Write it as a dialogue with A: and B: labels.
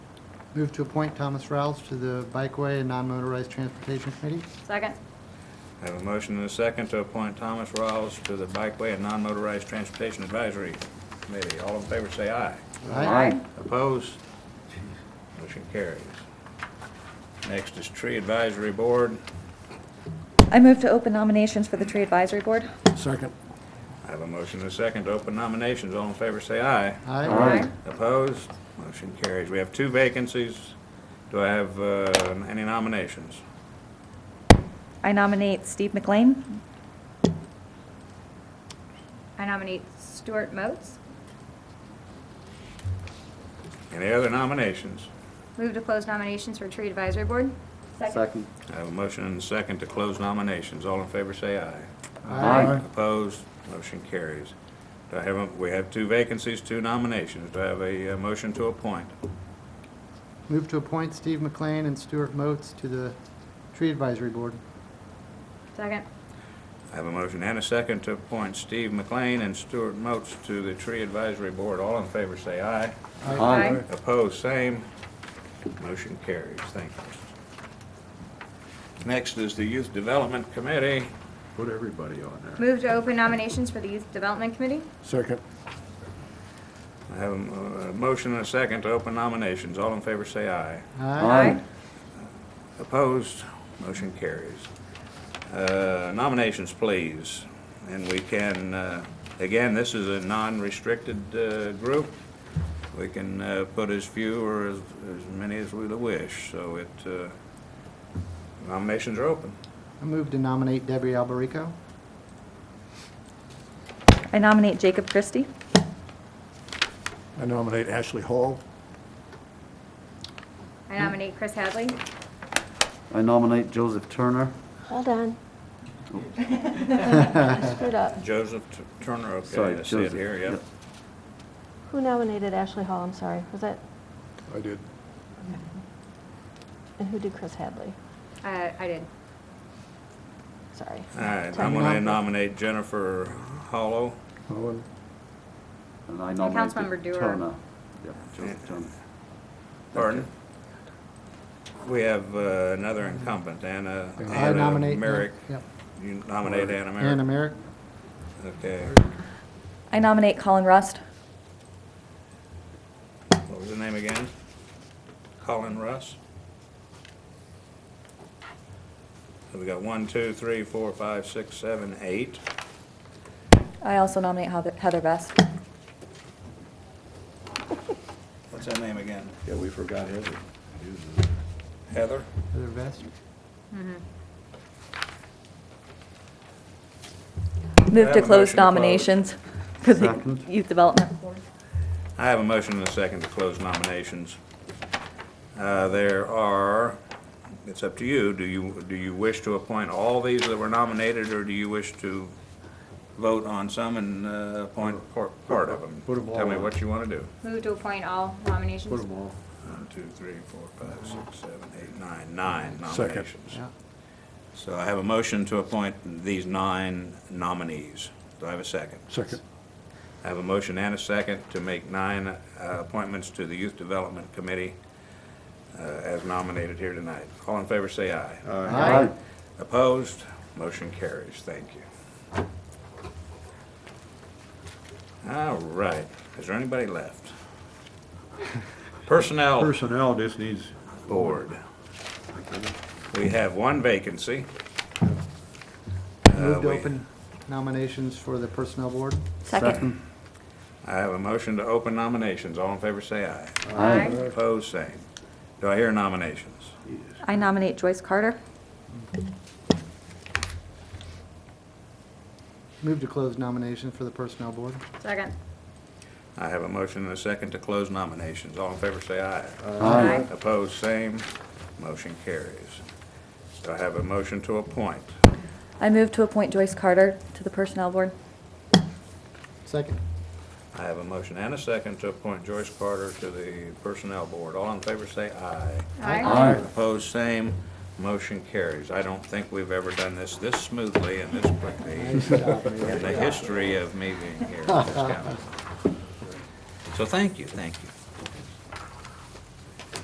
A: Move to appoint Thomas Rouse to the Bikeway and Non-Motorized Transportation Committee.
B: Second.
C: I have a motion and a second to appoint Thomas Rawls to the Bikeway and Non-Motorized Transportation Advisory Committee. All in favor, say aye. Opposed? Motion carries. Next is Tree Advisory Board.
D: I move to open nominations for the Tree Advisory Board.
E: Second.
C: I have a motion and a second to open nominations. All in favor, say aye.
A: Aye.
C: Opposed? Motion carries. We have two vacancies. Do I have uh, any nominations?
D: I nominate Steve McLean.
B: I nominate Stuart Motes.
C: Any other nominations?
B: Move to close nominations for Tree Advisory Board.
F: Second.
C: I have a motion and a second to close nominations. All in favor, say aye.
F: Aye.
C: Opposed? Motion carries. Do I have, a- we have two vacancies, two nominations. Do I have a uh, motion to appoint?
A: Move to appoint Steve McLean and Stuart Moats to the Tree Advisory Board.
B: Second.
C: I have a motion and a second to appoint Steve McLean and Stuart Moats to the Tree Advisory Board. All in favor, say aye.
B: Aye.
C: Opposed, same. Motion carries. Thank you. Next is the Youth Development Committee.
F: Put everybody on there.
B: Move to open nominations for the Youth Development Committee.
E: Second.
C: I have a mo- a motion and a second to open nominations. All in favor, say aye.
A: Aye.
C: Opposed, motion carries. Uh, Nominations, please. And we can, uh, again, this is a non-restricted uh, group. We can uh, put as few or as as many as we wish, so it, uh, nominations are open.
A: I move to nominate Debbie Alberico.
D: I nominate Jacob Christie.
E: I nominate Ashley Hall.
B: I nominate Chris Hadley.
F: I nominate Joseph Turner.
G: Hold on. I Screwed up.
C: Joseph T- Turner, okay,
F: Sorry,
C: I see it
F: Joseph.
C: here, yep.
F: Yep.
G: Who nominated Ashley Hall? I'm sorry. Was that,
E: I did.
G: and who did Chris Hadley?
B: Uh, I did.
G: Sorry.
C: All right,
G: Sorry.
C: I'm going to nominate Jennifer Hollow.
E: Holland.
F: And I nominate
B: Councilmember Dewar.
F: Turner. Yep, Joseph Turner.
C: Pardon? We have uh, another incumbent, Anna
A: I
C: Anna
A: nominate.
C: Merrick.
A: Yep.
C: You nominate Anna
A: Anna
C: Merrick?
A: Merrick.
C: Okay.
D: I nominate Colin Rust.
C: What was the name again? Colin Russ? So we got one, two, three, four, five, six, seven, eight.
D: I also nominate Heather- Heather Best.
C: What's that name again?
F: Yeah, we forgot Heather.
C: Heather?
A: Heather Vest.
D: Move
C: have
D: to close
C: a motion to close.
D: nominations for the
F: Second.
D: Youth Development Board.
C: I have a motion and a second to close nominations. Uh, There are, it's up to you, do you, do you wish to appoint all these that were nominated, or do you wish to vote on some and uh, appoint por- part of them?
E: Put 'em all
C: Tell me
E: on.
C: what you want to do.
B: Move to appoint all nominations.
E: Put them all.
C: One, two, three, four, five, six, seven, eight, nine, nine
E: Second.
C: nominations.
A: Yeah.
C: So I have a motion to appoint these nine nominees. Do I have a second?
E: Second.
C: I have a motion and a second to make nine uh, appointments to the Youth Development Committee uh, as nominated here tonight. All in favor, say aye.
A: Aye.
C: Opposed? Motion carries. Thank you. All right. Is there anybody left? Personnel
F: Personnel just needs.
C: Board. We have one vacancy. Uh,
A: Move to
C: we-
A: open nominations for the Personnel Board.
D: Second.
C: I have a motion to open nominations. All in favor, say aye.
F: Aye.
C: Opposed, same. Do I hear nominations?
D: I nominate Joyce Carter.
A: Move to close nominations for the Personnel Board.
B: Second.
C: I have a motion and a second to close nominations. All in favor, say aye.
B: Aye.
C: Opposed, same. Motion carries. Do I have a motion to appoint?
D: I move to appoint Joyce Carter to the Personnel Board.
A: Second.
C: I have a motion and a second to appoint Joyce Carter to the Personnel Board. All in favor, say aye.
B: Aye.
C: Opposed, same. Motion carries. I don't think we've ever done this this smoothly and this quickly in the history of me being here in this county. So thank you, thank you.